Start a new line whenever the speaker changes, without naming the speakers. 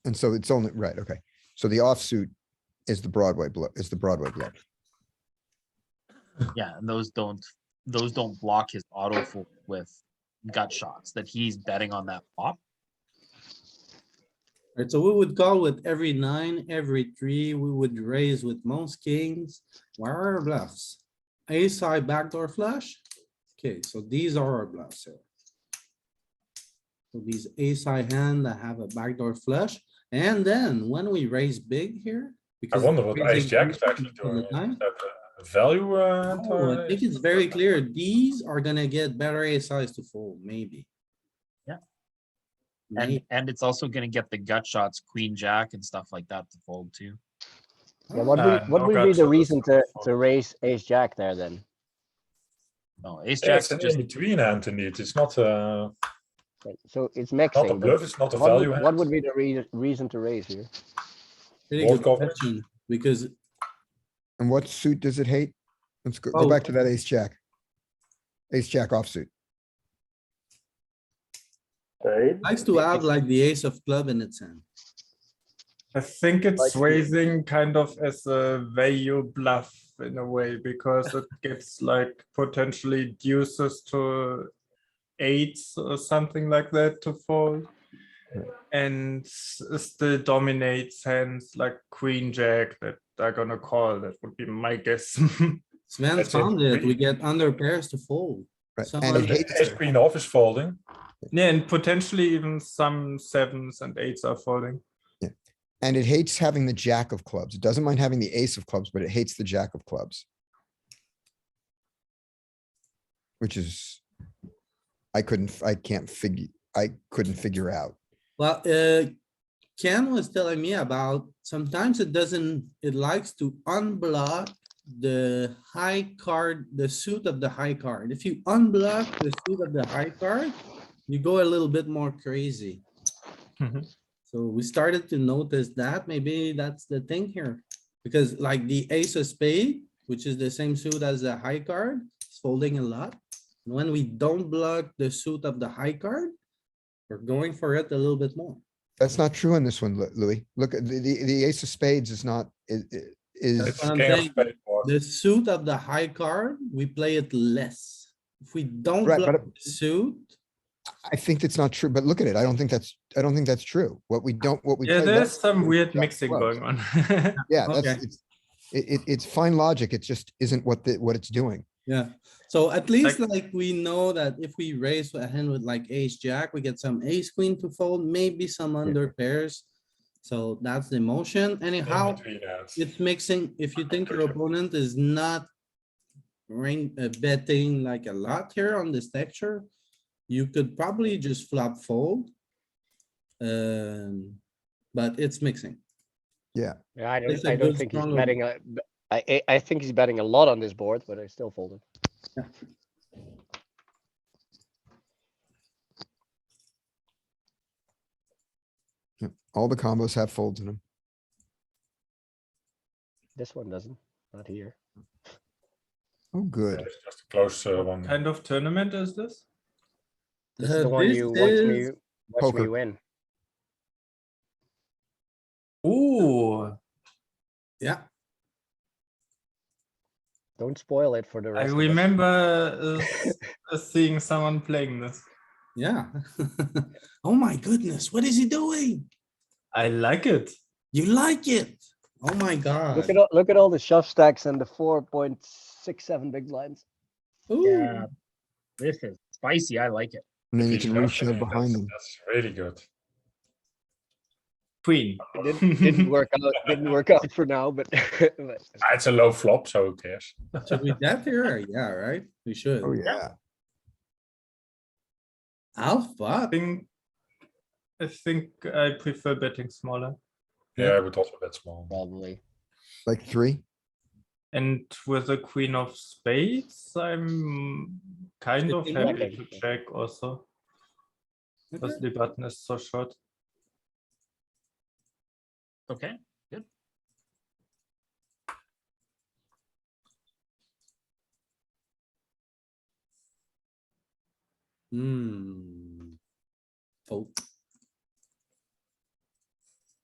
And so it's only, right, okay. So the offsuit is the Broadway blow, is the Broadway blow.
Yeah, and those don't those don't block his auto fold with gut shots that he's betting on that flop.
Right, so we would call with every nine, every three, we would raise with most kings. Where are our bluffs? Ace high backdoor flush? Okay, so these are our bluffs here. So these ace high hand that have a backdoor flush, and then when we raise big here.
I
because
wonder what
raising
ace jack
big
is actually
on the
doing.
nine,
Is that a value? Uh, hand
oh,
or
I think it's very clear, these are gonna get better ace size to fold, maybe.
Yeah. And
Maybe.
and it's also gonna get the gut shots, queen jack and stuff like that to fold too.
Yeah, what
Uh,
would, what would be
knockouts
the
are
reason to,
for-
to raise ace jack there then?
No, Oh, ace
Yeah,
jack's
it's an
just
in between hand to need. It's not uh
Like, So it's
not a
maxing,
bluff.
but
It's not a
what
value.
would,
hand.
what would be the rea- reason to raise here?
Pretty good
Board coverage.
question, Because
And what suit does it hate? Let's go,
Oh.
go back to that ace jack. Ace jack offsuit.
Likes to have like the ace of club in its hand.
I think
Like
it's
the-
raising kind of as a value bluff in a way because it gives like potentially deuces to eights or something like that to fold. And s- still dominates hands like queen jack that are gonna call. That would be my guess.
Sven
That's it.
found it. We
Really?
get under pairs to fold.
Right,
Someone
and it
But
Well,
the
hates,
Ace queen off is folding.
Yeah, and potentially even some sevens and eights are folding.
and it hates having the jack of clubs. It doesn't mind having the ace of clubs, but it hates the jack of clubs. Which is, I couldn't, f- I can't figure, I couldn't figure out.
Well, uh, Ken was telling me about sometimes it doesn't, it likes to unblock the high card, the suit of the high card. If you unblock the suit of the high card, you go a little bit more crazy.
Mhm.
So we started to notice that maybe that's the thing here. Because like the ace of spade, which is the same suit as the high card, it's folding a lot. When we don't block the suit of the high card, we're going for it a little bit more.
That's not true on this one, Lu- Louis. Look, at the, the, the ace of spades is not, i- i- is,
It's
what I'm
king of
saying.
spades board.
The suit of the high card, we play it less. If we don't
Right,
block
but-
the suit,
I think that's not true, but look at it. I don't think that's, I don't think that's true. What we don't, what we.
Yeah,
play less
there's some
is
weird
jack of
mixing
clubs.
going on.
Yeah,
Okay.
that's, it's, it, it, it's fine logic. It just isn't what the, what it's doing.
yeah. So at least like we know that if we raise a hand with like ace jack, we get some ace queen to fold, maybe some under pairs. So that's the motion anyhow.
In between hands.
It's mixing, if you think your opponent is not ring, uh, betting like a lot here on this texture, you could probably just flop fold. Um, but it's mixing.
Yeah, I
It's
don't,
a
I don't
good
think he's
strong-
betting, a- b- I, I- I think he's betting a lot on this board, but I still fold it.
All the combos have folds in them.
This one doesn't, not here.
Oh, good.
It's just a close uh, one.
Kind of tournament is this?
This is
Uh,
the one
this
you watch me,
is-
watch me
Poker.
win.
Ooh.
Yeah,
Don't spoil it for the
I
rest. of us.
remember uh, uh, seeing someone playing this.
yeah. Oh my goodness, what is he doing?
I like it.
You like it? Oh my god.
Look at, all- look at all the shove stacks and the four point six seven big blinds.
Ooh,
yeah. This is spicy. I like it.
And then you can
Queen jack, I
reshove
mean,
behind
that's-
them.
That's really good.
Queen.
It Didn't, didn't work out, didn't work out for now, but, but
Ah, It's a low flop, so who cares?
should we bet here? Yeah, right? We should.
Oh, yeah.
I
Alpha,
think, I think I prefer betting smaller
Yeah, I would also bet small.
probably.
Like three?
and with a queen of spades, I'm kind of
Sitting
happy
back.
to check also. Because
Okay.
the button is so short.
Okay.
hmm. Fold.